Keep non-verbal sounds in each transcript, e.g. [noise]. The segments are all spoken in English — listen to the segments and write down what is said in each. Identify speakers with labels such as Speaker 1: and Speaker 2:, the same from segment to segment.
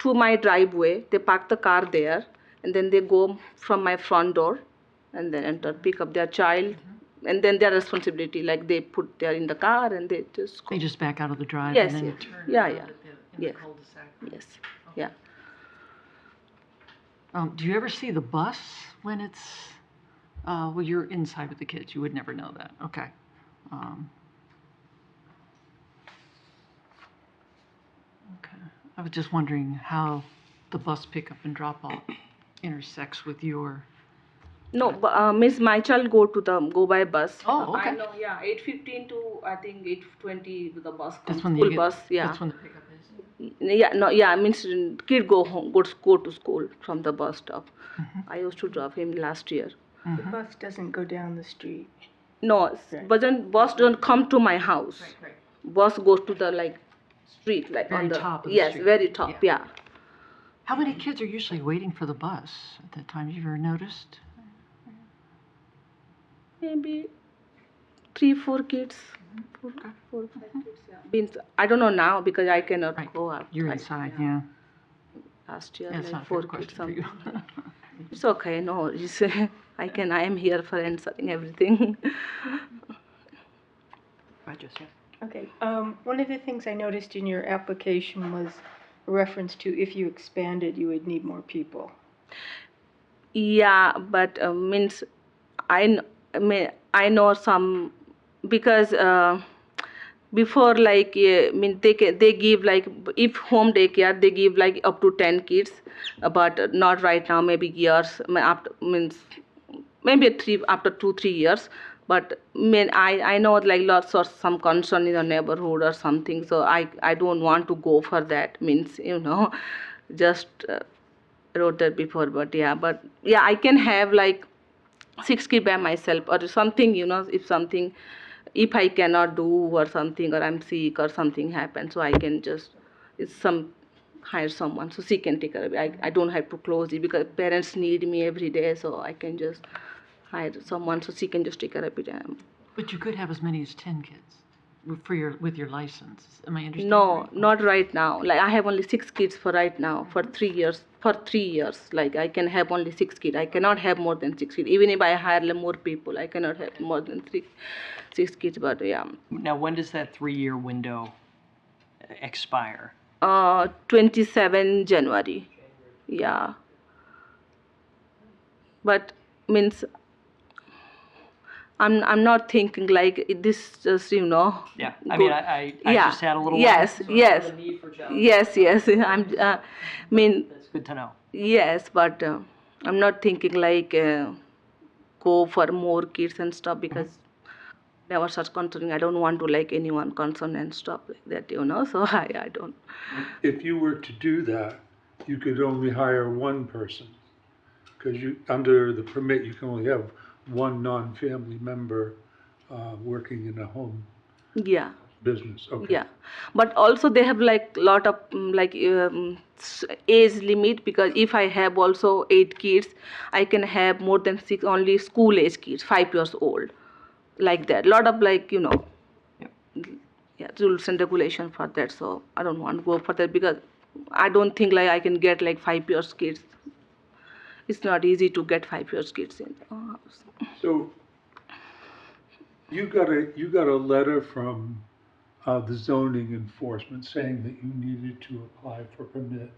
Speaker 1: to my driveway. They park the car there and then they go from my front door and then enter, pick up their child.
Speaker 2: Mm-hmm.
Speaker 1: And then their responsibility, like they put their in the car and they just go.
Speaker 2: They just back out of the drive
Speaker 1: Yes,
Speaker 2: and then
Speaker 1: yes.
Speaker 2: turn.
Speaker 1: Yeah,
Speaker 3: In
Speaker 1: yeah.
Speaker 3: the
Speaker 1: Yes.
Speaker 3: cul-de-sac.
Speaker 1: Yes, yeah.
Speaker 2: Um, do you ever see the bus when it's, uh, well, you're inside with the kids, you would never know that, okay. Um, Okay, I was just wondering how the bus pickup and drop off intersects with your,
Speaker 1: No, bu- uh, Miss, my child go to the, go by bus.
Speaker 2: oh,
Speaker 1: I
Speaker 2: okay.
Speaker 1: know, yeah, eight fifteen to, I think, eight twenty, the bus comes,
Speaker 2: That's when
Speaker 1: school
Speaker 2: you
Speaker 1: bus,
Speaker 2: get,
Speaker 1: yeah.
Speaker 2: that's when the pickup is.
Speaker 1: Yeah, no, yeah, I mean, student- kid go home, go to, go to school from the bus stop.
Speaker 2: Mm-hmm.
Speaker 1: I used to drop him last year.
Speaker 4: The bus doesn't go down the street.
Speaker 1: No, s- doesn't, bus don't come to my house.
Speaker 3: right.
Speaker 1: Bus goes to the, like, street, like
Speaker 2: Very
Speaker 1: on the.
Speaker 2: top of the
Speaker 1: Yes,
Speaker 2: street.
Speaker 1: very top, yeah.
Speaker 2: How many kids are usually waiting for the bus at that time, you ever noticed?
Speaker 1: Maybe three, four kids.
Speaker 2: Mm-hmm.
Speaker 1: Four, four, five kids, yeah. Means, I don't know now because I cannot
Speaker 2: Right.
Speaker 1: go out.
Speaker 2: You're
Speaker 1: I-
Speaker 2: inside, yeah,
Speaker 1: Last year,
Speaker 2: that's not
Speaker 1: like
Speaker 2: a fair
Speaker 1: four kids,
Speaker 2: question for
Speaker 1: something.
Speaker 2: you. [laughs]
Speaker 1: It's okay, no, it's, [laughs] I can, I am here for answering everything. [laughs]
Speaker 4: Okay. Um, one of the things I noticed in your application was a reference to if you expanded, you would need more people.
Speaker 1: Yeah, but uh, means I kn- I mean I know some because uh, before like uh, mean they ca- they give like if home daycare they give like up to ten kids, uh, but not right now maybe years I mean, after means maybe three after two three years. But mean I I know like lots of some concern in the neighborhood or something, so I I don't want to go for that means you know [laughs] just. Uh, wrote that before but yeah but yeah i can have like six kid by myself or something you know if something if i cannot do or something or i'm sick or something happens so i can just it's some hire someone so she can take care of it i, I don't have to close it because parents need me every day so i can just hire someone so she can just take care of it Um,
Speaker 2: But you could have as many as ten kids with- for your, with your license, am I understanding?
Speaker 1: no
Speaker 2: right?
Speaker 1: not right now like i have only six kids for right now for three years for three years like i can have only six kids i cannot have more than six kids even if i hire like, more people i cannot have more than three six kids but yeah
Speaker 5: Now, when does that three-year window expire?
Speaker 1: uh 27 january yeah but means i'm i'm not thinking like this just you know
Speaker 5: Yeah, I mean,
Speaker 1: Good.
Speaker 5: I, I, I
Speaker 1: yeah
Speaker 5: just had a little. while,
Speaker 1: yes
Speaker 5: so I don't
Speaker 1: yes
Speaker 5: have a need for jobs.
Speaker 1: yes yes [laughs] i'm uh, mean
Speaker 5: That's good to know.
Speaker 1: Yes, but uh, I'm not thinking like uh, go for more kids and stuff because never such concerning. I don't want to like anyone concerned and stuff like that, you know. [laughs] So I, I don't.
Speaker 6: If you were to do that, you could only hire one person. Because you, under the permit, you can only have one non-family member, uh, working in a home
Speaker 1: Yeah,
Speaker 6: business, okay?
Speaker 1: yeah. But also they have like lot of mm, like um, s- age limit because if I have also eight kids, I can have more than six only school age kids, five years old, like that. Lot of like you know. yeah, rules and regulation for that. So I don't want to go for that because I don't think like I can get like five years kids. It's not easy to get five years kids in. Oh,
Speaker 6: So you got a, you got a letter from, uh, the zoning enforcement saying that you needed to apply for permit.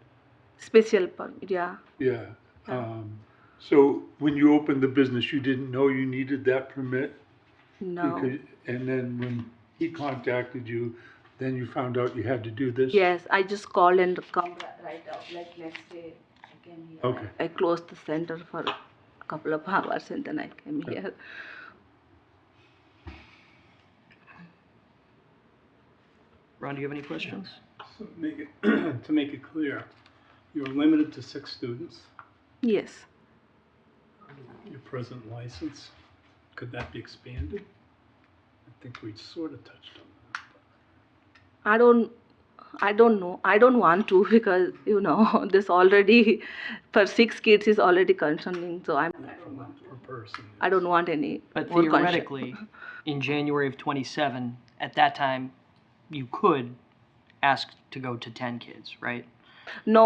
Speaker 1: Special permit, yeah.
Speaker 6: Yeah. Um, so when you opened the business, you didn't know you needed that permit?
Speaker 1: No.
Speaker 6: Because- And then when he contacted you, then you found out you had to do this?
Speaker 1: Yes, I just called and come ri- right out. Like next day, I came here.
Speaker 6: Okay.
Speaker 1: I closed the center for a couple of [laughs] hours and then I came here.
Speaker 5: Ron, do you have any questions?
Speaker 7: So make it, [clears throat] to make it clear, you're limited to six students,
Speaker 1: Yes.
Speaker 7: your present license. Could that be expanded? I think we sort of touched on
Speaker 1: I don't I don't know. I don't want to [laughs] because you know [laughs] this already for six kids is already concerning. So I'm
Speaker 7: that per person.
Speaker 1: I don't want any.
Speaker 5: But
Speaker 1: more concern.
Speaker 5: theoretically, in January of twenty-seven, at that time, you could ask to go to ten kids, right?
Speaker 1: no,